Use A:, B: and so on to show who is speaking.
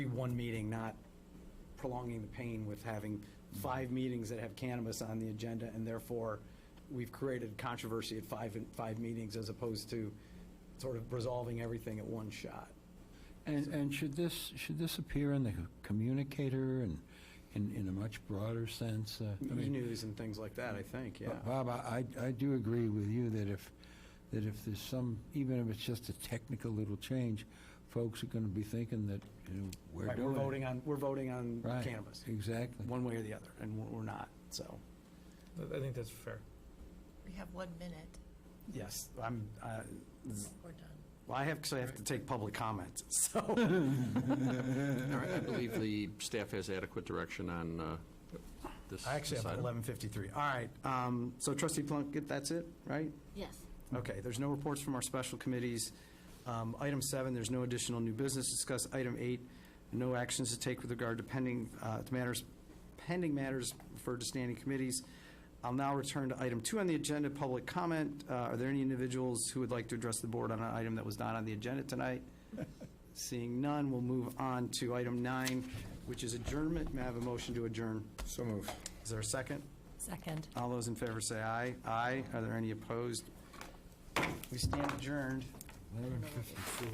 A: be one meeting, not prolonging the pain with having five meetings that have cannabis on the agenda, and therefore, we've created controversy at five, five meetings as opposed to sort of resolving everything at one shot.
B: And, and should this, should this appear in the communicator and in, in a much broader sense? Uh, I mean,
A: E-news and things like that, I think, yeah.
B: Bob, I, I I do agree with you that if, that if there's some, even if it's just a technical little change, folks are going to be thinking that, you know, we're
A: Right, We're
B: doing it.
A: voting on, we're voting on
B: Right,
A: cannabis,
B: Exactly.
A: one way or the other, and we're we're not, so,
C: I- I think that's fair.
D: We have one minute.
A: yes, I'm, uh, z-
D: We're done.
A: well, I have, because I have to take public comments, so.
E: All right, I believe the staff has adequate direction on uh, this.
A: I actually have
E: this item.
A: 11:53. All right, um, so trustee Plunkett, that's it, right?
D: Yes.
B: Mm-hmm.
A: Okay, there's no reports from our special committees. Um, Item seven, there's no additional new business discussed. Item eight, no actions to take with regard to pending, uh, to matters, pending matters referred to standing committees. I'll now return to item two on the agenda, public comment. Uh, Are there any individuals who would like to address the board on an item that was not on the agenda tonight? Seeing none, we'll move on to item nine, which is adjournment. May I have a motion to adjourn?
F: So move.
A: Is there a second?
D: Second.
A: All those in favor say aye. Aye. Are there any opposed? We stand adjourned.